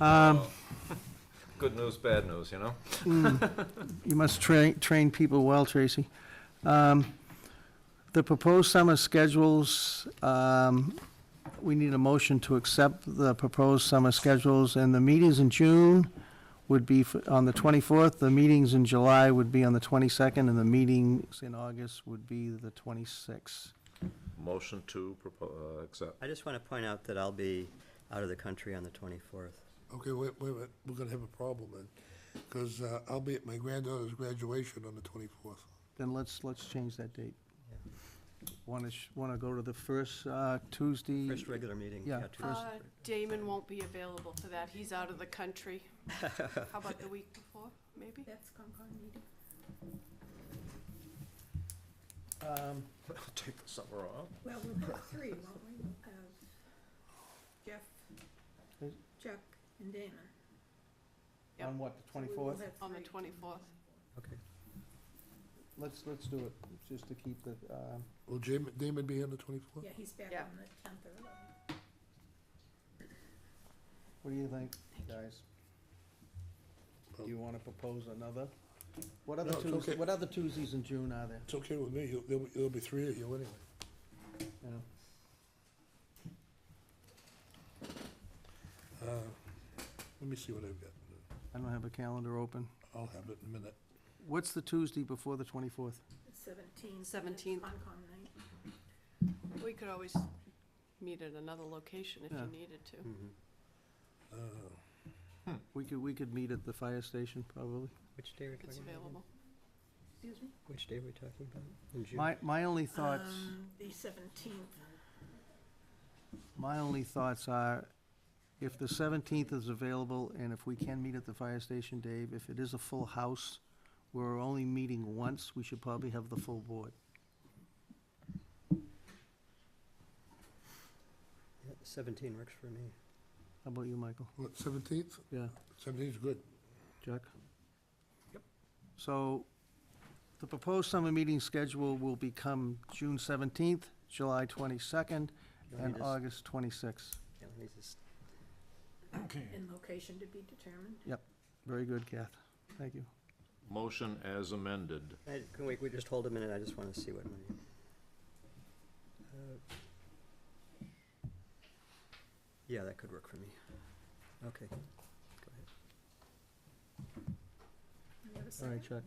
Um, Good news, bad news, you know? You must train, train people well, Tracy. Um, The proposed summer schedules, um, we need a motion to accept the proposed summer schedules, and the meetings in June would be f- on the 24th, the meetings in July would be on the 22nd, and the meetings in August would be the 26th. Motion to propo- uh, accept. I just want to point out that I'll be out of the country on the 24th. Okay, wait, wait a minute, we're gonna have a problem then, because I'll be at my granddaughter's graduation on the twenty-fourth. Then let's, let's change that date. Want to, want to go to the first uh, Tuesday? First regular meeting. Yeah, Tuesday. first- Uh, Damon won't be available for that, he's out of the country. How about the week before, maybe? That's Concom meeting. Um, Take the summer off. Well, we'll have three, won't we? We'll have Jeff, Is- Chuck, and Dana. Yep. On what, the So we 24th? will have On the three. 24th. Okay. Let's, let's do it, just to keep the, um, Will Jam- Damon be on the twenty-fourth? Yeah, he's back Yeah. on the tenth or eleventh. what do you think, guys? Do you wanna propose another? What other No, it's Tuesdays, okay. what other Tuesdays in June are there? It's okay with me, You'll- there'll, be- there'll be three of you anyway. You know, Uh, Let me see what I've got, I don't have a calendar open. I'll have it in a minute. What's the Tuesday before the twenty-fourth? Seventeenth. 17th. Concom night. We could always meet at another location if Yeah. you needed to. Mm-hmm. Uh, We could, we could meet at the fire station, probably. Which day are we If it's talking about? again? available. Excuse me? Which day are we talking about? In June? My, my only thoughts, Um, The seventeenth. my only thoughts are, if the seventeenth is available, and if we can meet at the fire station, Dave, if it is a full house, we're only meeting once, we should probably have the full board. Yeah, 17 works for me. How about you, Michael? What, seventeenth? Yeah. Seventeenth's good. Jack? Yep. So the proposed summer meeting schedule will become June seventeenth, July twenty-second, You'll and need to s- August twenty-sixth. you'll need to s- And location to be determined. Very good, Kath. Thank you. Motion as amended. I- Can we, we just hold a minute? I just want to see what my. Uh, Yeah, that could work for me. Okay. Go ahead. You have a All right, second? Chuck.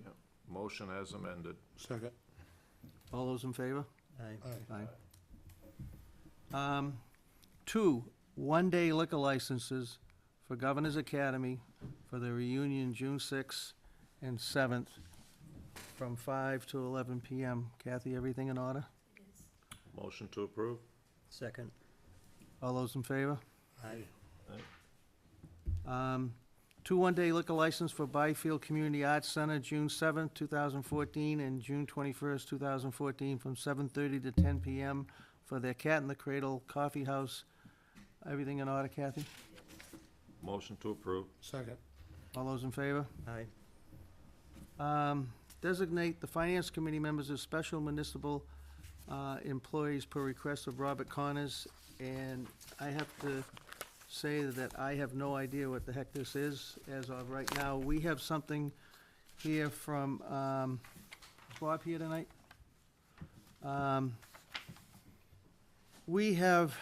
Motion as amended. Second. All those in favor? Aye. Aye. Aye. Um, Two, one-day liquor licenses for Governor's Academy for the reunion June sixth and seventh from five to eleven PM. Kathy, everything in order? It is. Motion to approve. Second. All those in favor? Aye. Um, Two one-day liquor license for Byfield Community Arts Center, June seventh, two thousand fourteen, and June twenty-first, two thousand fourteen, from seven thirty to ten PM for their Cat in the Cradle Coffee House. Everything in order, Kathy? Motion to approve. Second. All those in favor? Aye. Um, Designate the Finance Committee members as special municipal uh, employees per request of Robert Connors. And I have to say that I have no idea what the heck this is as of right now. We have something here from, um, is Bob here tonight? Um, We have,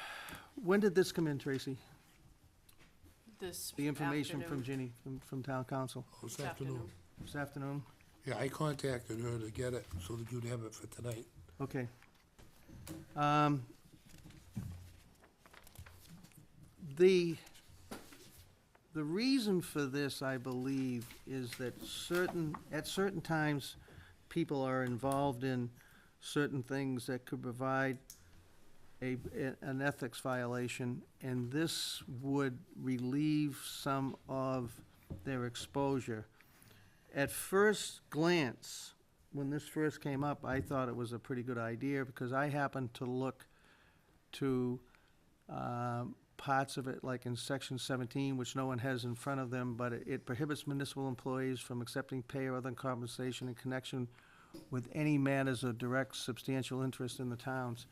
when did this come in, Tracy? This The information from afternoon- Ginny, from- from town council, Oh, This afternoon. this afternoon? Yeah, I contacted her to get it so that you'd have it for tonight. Okay. Um, The, the reason for this, I believe, is that certain, at certain times, people are involved in certain things that could provide a, an ethics violation, and this would relieve some of their exposure. At first glance, when this first came up, I thought it was a pretty good idea, because I happened to look to um, parts of it, like in section seventeen, which no one has in front of them, but it- it prohibits municipal employees from accepting pay or other compensation in connection with any matters of direct substantial interest in the towns.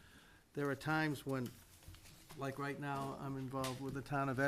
There are times when, like right now, I'm involved with the town of